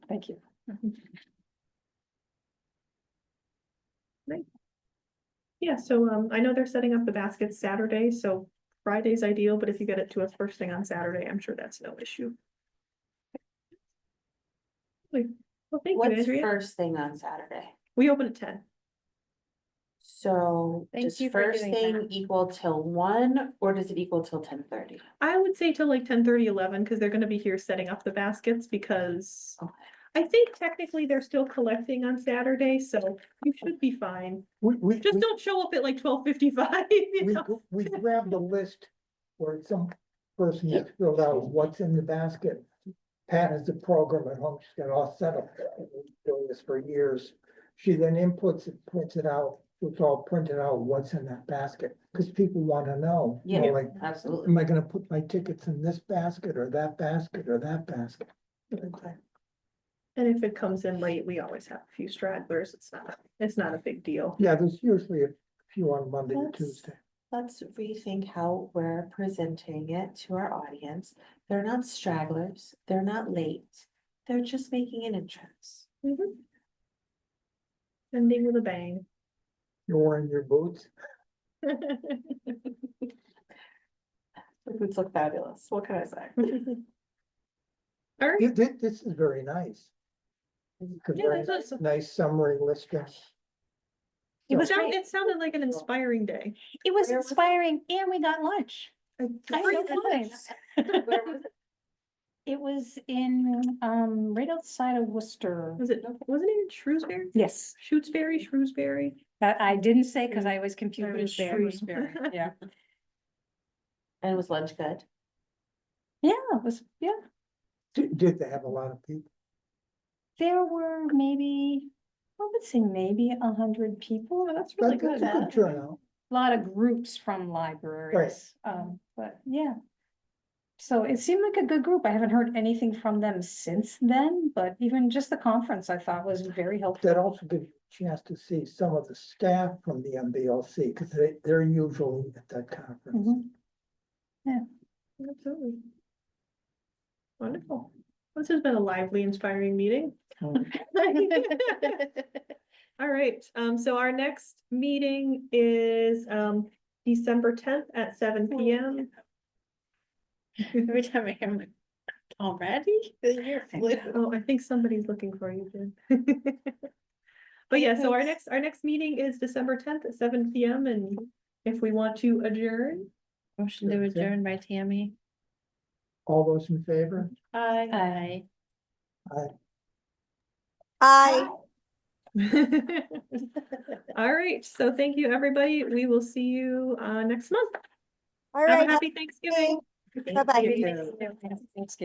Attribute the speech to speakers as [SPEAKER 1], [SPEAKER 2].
[SPEAKER 1] Thank you.
[SPEAKER 2] Yeah, so um, I know they're setting up the baskets Saturday, so Friday's ideal, but if you get it to us first thing on Saturday, I'm sure that's no issue. Like, Well, thank you,
[SPEAKER 3] What's
[SPEAKER 2] Andrea.
[SPEAKER 3] first thing on Saturday?
[SPEAKER 2] We open at ten.
[SPEAKER 3] So
[SPEAKER 1] Thank
[SPEAKER 3] does
[SPEAKER 1] you for
[SPEAKER 3] first
[SPEAKER 1] doing
[SPEAKER 3] thing
[SPEAKER 1] that.
[SPEAKER 3] equal till one, or does it equal till ten thirty?
[SPEAKER 2] I would say till like 10, 11 eleven, because they're gonna be here setting up the baskets because
[SPEAKER 3] Okay.
[SPEAKER 2] I think technically they're still collecting on Saturday, so you should be fine.
[SPEAKER 4] We, we,
[SPEAKER 2] Just
[SPEAKER 4] we-
[SPEAKER 2] don't show up at like twelve fifty-five, you
[SPEAKER 4] we,
[SPEAKER 2] know?
[SPEAKER 4] gr- we grabbed a list where some person has filled out what's in the basket. Pat has a program at home, she's got it all set up, doing this for years. She then inputs it, prints it out, it's all printed out, what's in that basket, because people want to know. you know,
[SPEAKER 3] Yeah.
[SPEAKER 4] Like,
[SPEAKER 3] Absolutely.
[SPEAKER 4] am I gonna put my tickets in this basket or that basket or that basket?
[SPEAKER 2] And if it comes in late, we always have a few stragglers. It's not, it's not a big deal.
[SPEAKER 4] Yeah, there's usually a few on Monday or
[SPEAKER 3] That's-
[SPEAKER 4] Tuesday.
[SPEAKER 3] Let's rethink how we're presenting it to our audience. They're not stragglers, they're not late, they're just making an entrance.
[SPEAKER 2] Ending with a bang.
[SPEAKER 4] You're wearing your boots.
[SPEAKER 3] The boots look fabulous, what can I say?
[SPEAKER 2] All right.
[SPEAKER 4] Yeah, thi- This is very nice. It's a
[SPEAKER 2] Yeah,
[SPEAKER 4] very
[SPEAKER 2] that's awesome.
[SPEAKER 4] Nice summary list. yeah.
[SPEAKER 1] It
[SPEAKER 2] It
[SPEAKER 1] was
[SPEAKER 2] sounded,
[SPEAKER 1] great.
[SPEAKER 2] it sounded like an inspiring day.
[SPEAKER 1] It was
[SPEAKER 3] Where was it?
[SPEAKER 1] inspiring and we got lunch. I had no complaints.
[SPEAKER 3] Where was it?
[SPEAKER 1] It was in, um, right outside of Worcester.
[SPEAKER 2] Was it, wasn't it in Shrewsbury?
[SPEAKER 1] Yes,
[SPEAKER 2] Shutesbury, Shrewsbury?
[SPEAKER 1] that I didn't say because I was confused.
[SPEAKER 2] was
[SPEAKER 1] with
[SPEAKER 2] there.
[SPEAKER 1] Shrewsbury, Yeah.
[SPEAKER 3] And was lunch good?
[SPEAKER 1] Yeah, Oh, it was, yeah.
[SPEAKER 4] Did, did they have a lot of people?
[SPEAKER 1] There were maybe, I would say maybe a hundred people.
[SPEAKER 2] Oh, that's really
[SPEAKER 4] But
[SPEAKER 2] good.
[SPEAKER 4] that's a good turnout.
[SPEAKER 1] a lot of groups from libraries, um, but yeah. So it seemed like a good group. I haven't heard anything from them since then, but even just the conference I thought was very helpful.
[SPEAKER 4] That also gives you a chance to see some of the staff from the MBLC, because they, they're usually at that conference.
[SPEAKER 1] Mhm.
[SPEAKER 2] Absolutely. Wonderful. This has been a lively, inspiring meeting.
[SPEAKER 4] Mm.
[SPEAKER 2] All right, um, so our next meeting is, um, December tenth at seven P M.
[SPEAKER 5] Oh, Every time I hear him, like, already? The year flew.
[SPEAKER 2] Oh, I think somebody's looking for you, Jen. But yeah, so our next, our next meeting is December tenth at seven P M and if we want to adjourn.
[SPEAKER 5] Motion to
[SPEAKER 4] Okay.
[SPEAKER 5] adjourn by Tammy.
[SPEAKER 4] All those in favor?
[SPEAKER 2] I.
[SPEAKER 5] Aye.
[SPEAKER 2] All right, so thank you, everybody. We will see you, uh, next month.
[SPEAKER 6] All
[SPEAKER 2] Have a
[SPEAKER 6] right,
[SPEAKER 2] happy Thanksgiving.
[SPEAKER 6] bye-bye.
[SPEAKER 5] Thank you.
[SPEAKER 1] Thanks,